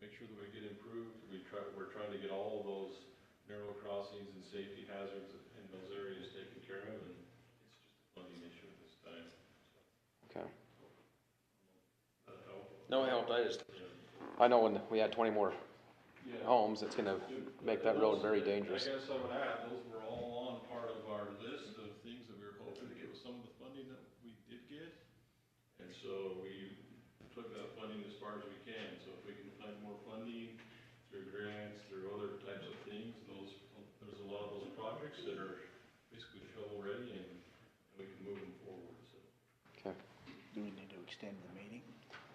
can we get improved? We try, we're trying to get all of those narrow crossings and safety hazards in those areas taken care of, and it's just a funding issue at this time. Okay. That help? No, it helped. I just, Yeah. I know when we had twenty more Yeah. homes, it's gonna make that road very dangerous. I guess I would add, those were all on part of our list of things that we were hoping to get with some of the funding that we did get. And so we took that funding as far as we can, so if we can find more funding through grants, through other types of things, those, there's a lot of those projects that are basically shovel ready and and we can move them forward, so. Okay. Do we need to extend the meeting?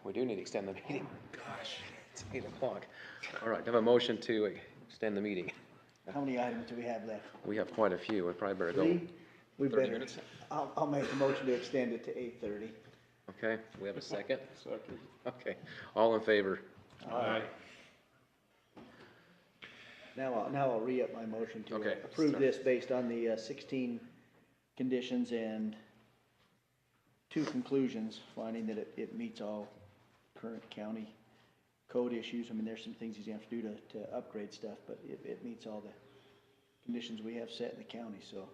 We do need to extend the meeting. Gosh. It's eight o'clock. All right, I have a motion to extend the meeting. How many items do we have left? We have quite a few. We probably better go. Three? We 30 better, minutes? I'll, I'll make the motion to extend it to eight thirty. Okay, we have a second? Second. Okay, all in favor? Now, I'll, now I'll re-up my motion to Okay. approve this based on the uh, sixteen conditions and two conclusions, finding that it, it meets all current county code issues. I mean, there's some things he's gonna have to do to, to upgrade stuff, but it, it meets all the conditions we have set in the county, so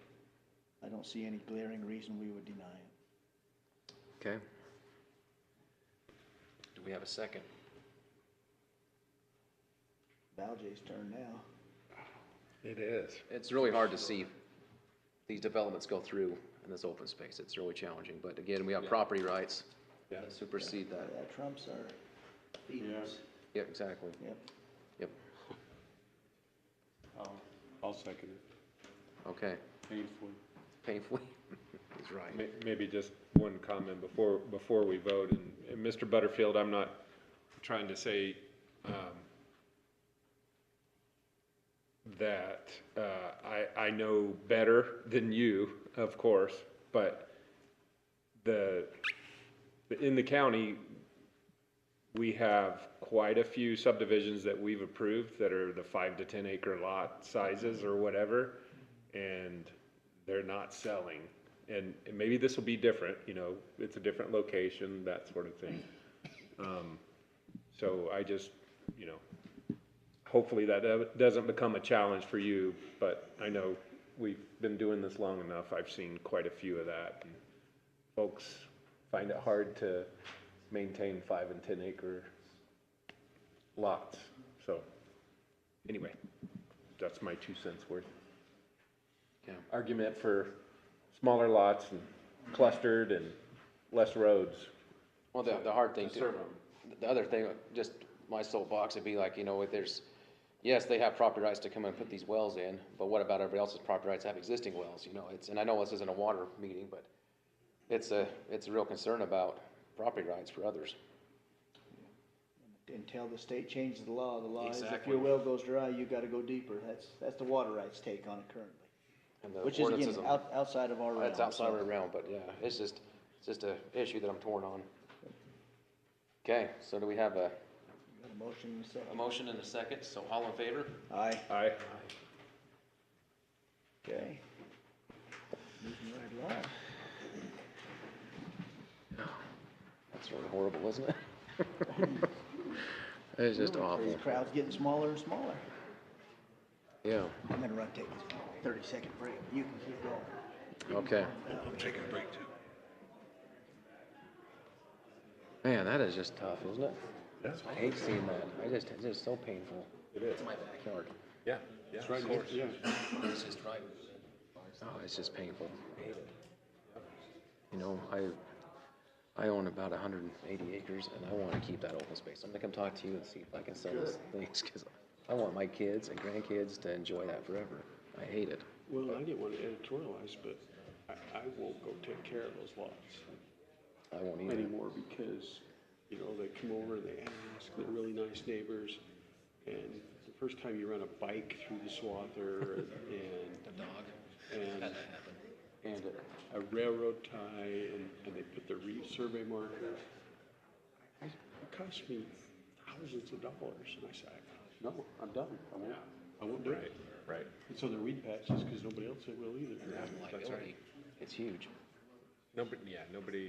I don't see any glaring reason we would deny it. Okay. Do we have a second? Valjay's turn now. It is. It's really hard to see these developments go through in this open space. It's really challenging, but again, we have property rights that supersede Uh, that. That trumps our feelings. Yeah, exactly. Yep. Yep, I'll, I'll second it okay. painfully. Painfully. He's right. May- Maybe just one comment before, before we vote, and, and Mr. Butterfield, I'm not trying to say, um, that, uh, I, I know better than you, of course, but the, in the county, we have quite a few subdivisions that we've approved that are the five to ten acre lot sizes or whatever, and they're not selling. And, and maybe this will be different, you know, it's a different location, that sort of thing. Um, So I just, you know, hopefully that do- doesn't become a challenge for you, but I know we've been doing this long enough, I've seen quite a few of that. and Folks find it hard to maintain five and ten acre lots, so, anyway, that's my two cents worth Yeah. argument for smaller lots and clustered and less roads. Well, the, the hard thing To serve too, the other thing, just my soapbox would be like, you know, if there's, yes, they have property rights to come and put these wells in, but what about everybody else's property rights to have existing wells, you know, it's, and I know this isn't a water meeting, but it's a, it's a real concern about property rights for others. Until the state changes the law, the law is if Exactly. your well goes dry, you gotta go deeper. That's, that's the water rights take on it currently. And the Which is ordinances, again, and- out, outside of our realm. that's Uh, outside so- of our realm, but yeah, it's just, it's just a issue that I'm torn on. Okay, so do we have a, Got a motion and a a second. motion and a second, so all in favor? Aye. I, Okay. Moving right along. That's really horrible, isn't it? It's just The awful, Crowd's getting smaller and smaller. yeah, I'm gonna run take this thirty second break. You can keep going. okay. I'm taking a break too. Man, that is just tough, isn't it? I hate seeing that. I just, it's just so painful. it is, my backyard. yeah, yeah, of course. It's just right. Oh, it's just painful. You know, I, I own about hundred and eighty acres and I wanna keep that open space. I'm gonna come talk to you and see if I can sell those things, cause I want my kids and grandkids to enjoy that forever. I hate it. Well, I didn't want to editorialize, but I, I won't go take care of those lots I won't eat it. anymore because, you know, they come over, they ask, they're really nice neighbors. And the first time you run a bike through the swather and, Dog. and, and a railroad tie and, and they put the reef survey marker. I- It cost me thousands of dollars and I said, no, I'm done. I won't, I won't do it. Right. And so they're weed patches because nobody else will either. Liability. oh, It's huge. Nobody, yeah, nobody